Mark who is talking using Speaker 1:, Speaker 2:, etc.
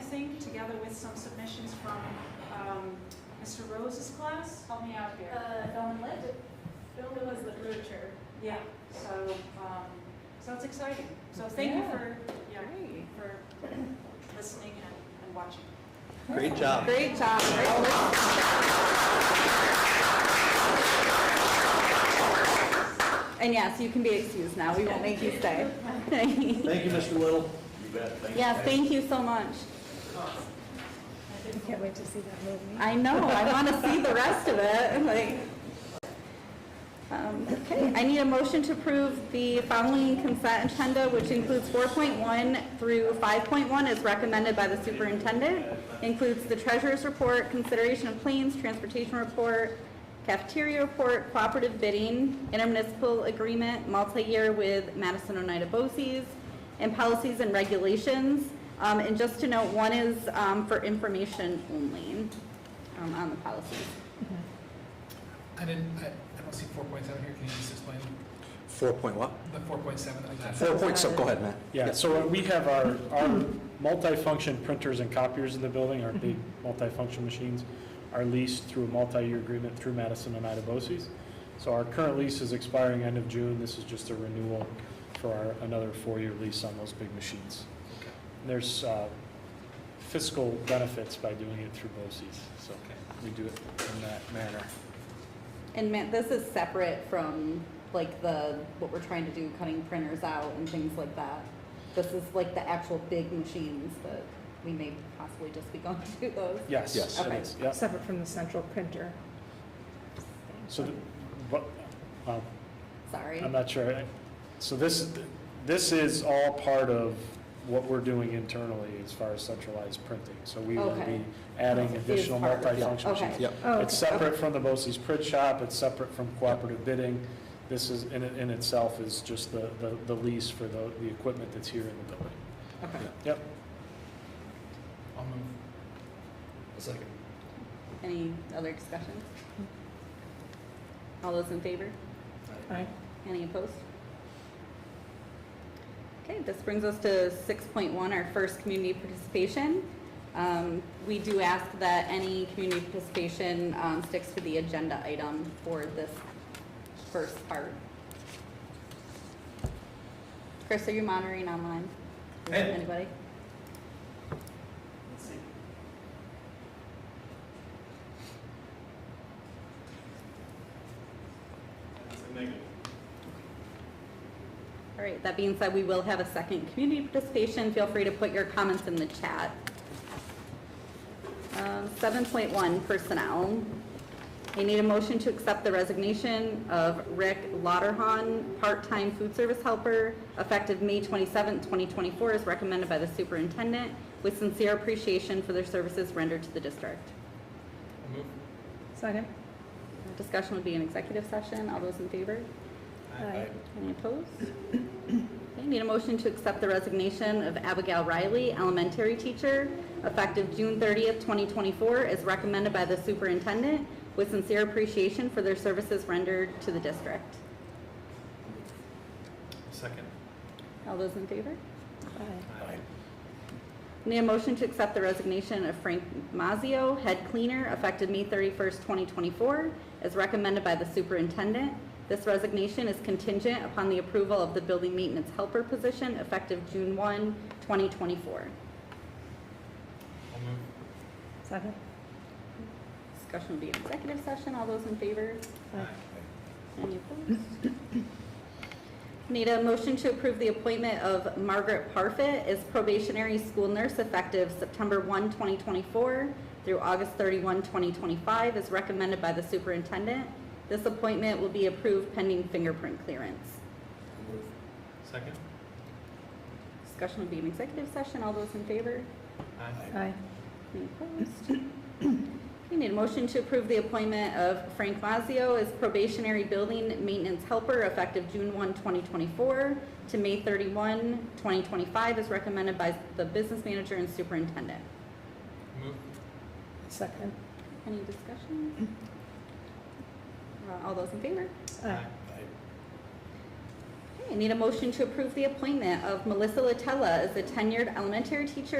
Speaker 1: think, together with some submissions from um, Mr. Rose's class. Help me out here.
Speaker 2: Uh, film and lit, film and was literature.
Speaker 1: Yeah, so, um, so it's exciting. So thank you
Speaker 3: Yeah.
Speaker 1: for, yeah,
Speaker 3: Great.
Speaker 1: for listening and- and watching.
Speaker 4: Great job.
Speaker 3: Great job. Great work. And yes, you can be excused now. We won't make you stay.
Speaker 4: Thank you, Mr. Little.
Speaker 5: You bet, thank you.
Speaker 3: Yeah, thank you so much.
Speaker 6: I can't wait to see that movie.
Speaker 3: I know, I want to see the rest of it, like. Um, Okay, I need a motion to approve the following consent agenda, which includes 4.1 through 5.1 as recommended by the superintendent. Includes the treasurer's report, consideration of claims, transportation report, cafeteria report, cooperative bidding, intermunicipal agreement, multi-year with Madison Oneida Bose's, and policies and regulations. Um, And just to note, one is um, for information only um, on the policies.
Speaker 7: I didn't, I, I don't see four point seven here, can you just explain
Speaker 4: Four point what?
Speaker 7: the four point seven of that?
Speaker 4: Four point seven, go ahead, Matt.
Speaker 8: Yeah, so we have our, our multi-function printers and copiers in the building, our big multi-function machines are leased through a multi-year agreement through Madison and Idebosis. So our current lease is expiring end of June. This is just a renewal for our, another four-year lease on those big machines. There's uh, fiscal benefits by doing it through BOSI's, so we do it in that manner.
Speaker 3: And Matt, this is separate from like the, what we're trying to do, cutting printers out and things like that. This is like the actual big machines that we may possibly just be going to those.
Speaker 8: Yes,
Speaker 4: Yes.
Speaker 8: it
Speaker 3: Okay.
Speaker 8: is, yep.
Speaker 6: Separate from the central printer.
Speaker 8: So, the- but, uh,
Speaker 3: Sorry.
Speaker 8: I'm not sure. I- So this, this is all part of what we're doing internally as far as centralized printing. So we will
Speaker 3: Okay.
Speaker 8: be adding
Speaker 3: It is
Speaker 8: additional
Speaker 3: part of it.
Speaker 8: multifunction
Speaker 3: Okay.
Speaker 8: machines.
Speaker 4: Yep.
Speaker 6: Oh,
Speaker 8: It's separate from the BOSI's print shop, it's separate from cooperative bidding. This is, in, in itself is just the, the- the lease for the, the equipment that's here in the building.
Speaker 3: Okay.
Speaker 8: Yep.
Speaker 7: I'll move.
Speaker 5: Second.
Speaker 3: Any other discussions? All those in favor?
Speaker 6: Aye.
Speaker 3: Any opposed? Okay, this brings us to six point one, our first community participation. Um, we do ask that any community participation, um, sticks to the agenda item for this first part. Chris, are you monitoring online?
Speaker 5: Hey.
Speaker 3: Anybody?
Speaker 5: Let's see. That's a negative.
Speaker 3: All right, that being said, we will have a second community participation. Feel free to put your comments in the chat. Um, 7.1 Personnel. I need a motion to accept the resignation of Rick Lauterhon, part-time food service helper, effective May 27, 2024, as recommended by the superintendent, with sincere appreciation for their services rendered to the district.
Speaker 7: I'll move.
Speaker 6: Second?
Speaker 3: Discussion would be an executive session. All those in favor?
Speaker 6: Aye.
Speaker 3: Any opposed? Okay, need a motion to accept the resignation of Abigail Riley, elementary teacher, effective June 30th, 2024, as recommended by the superintendent, with sincere appreciation for their services rendered to the district.
Speaker 7: Second.
Speaker 3: All those in favor?
Speaker 6: Aye.
Speaker 7: Aye.
Speaker 3: Need a motion to accept the resignation of Frank Mazio, head cleaner, effective May 31st, 2024, as recommended by the superintendent. This resignation is contingent upon the approval of the building maintenance helper position, effective June 1, 2024.
Speaker 7: I'll move.
Speaker 6: Second?
Speaker 3: Discussion will be in executive session. All those in favor?
Speaker 6: Aye.
Speaker 3: Any opposed? Need a motion to approve the appointment of Margaret Parfit as probationary school nurse effective September 1, 2024 through August 31, 2025, as recommended by the superintendent. This appointment will be approved pending fingerprint clearance.
Speaker 7: Second.
Speaker 3: Discussion will be in executive session. All those in favor?
Speaker 7: Aye.
Speaker 6: Aye.
Speaker 3: Any opposed? Okay, need a motion to approve the appointment of Frank Mazio as probationary building maintenance helper effective June 1, 2024 to May 31, 2025, as recommended by the business manager and superintendent.
Speaker 7: Move.
Speaker 6: Second?
Speaker 3: Any discussion? Uh, All those in favor?
Speaker 6: Aye.
Speaker 3: Okay, need a motion to approve the appointment of Melissa Latella as a tenured elementary teacher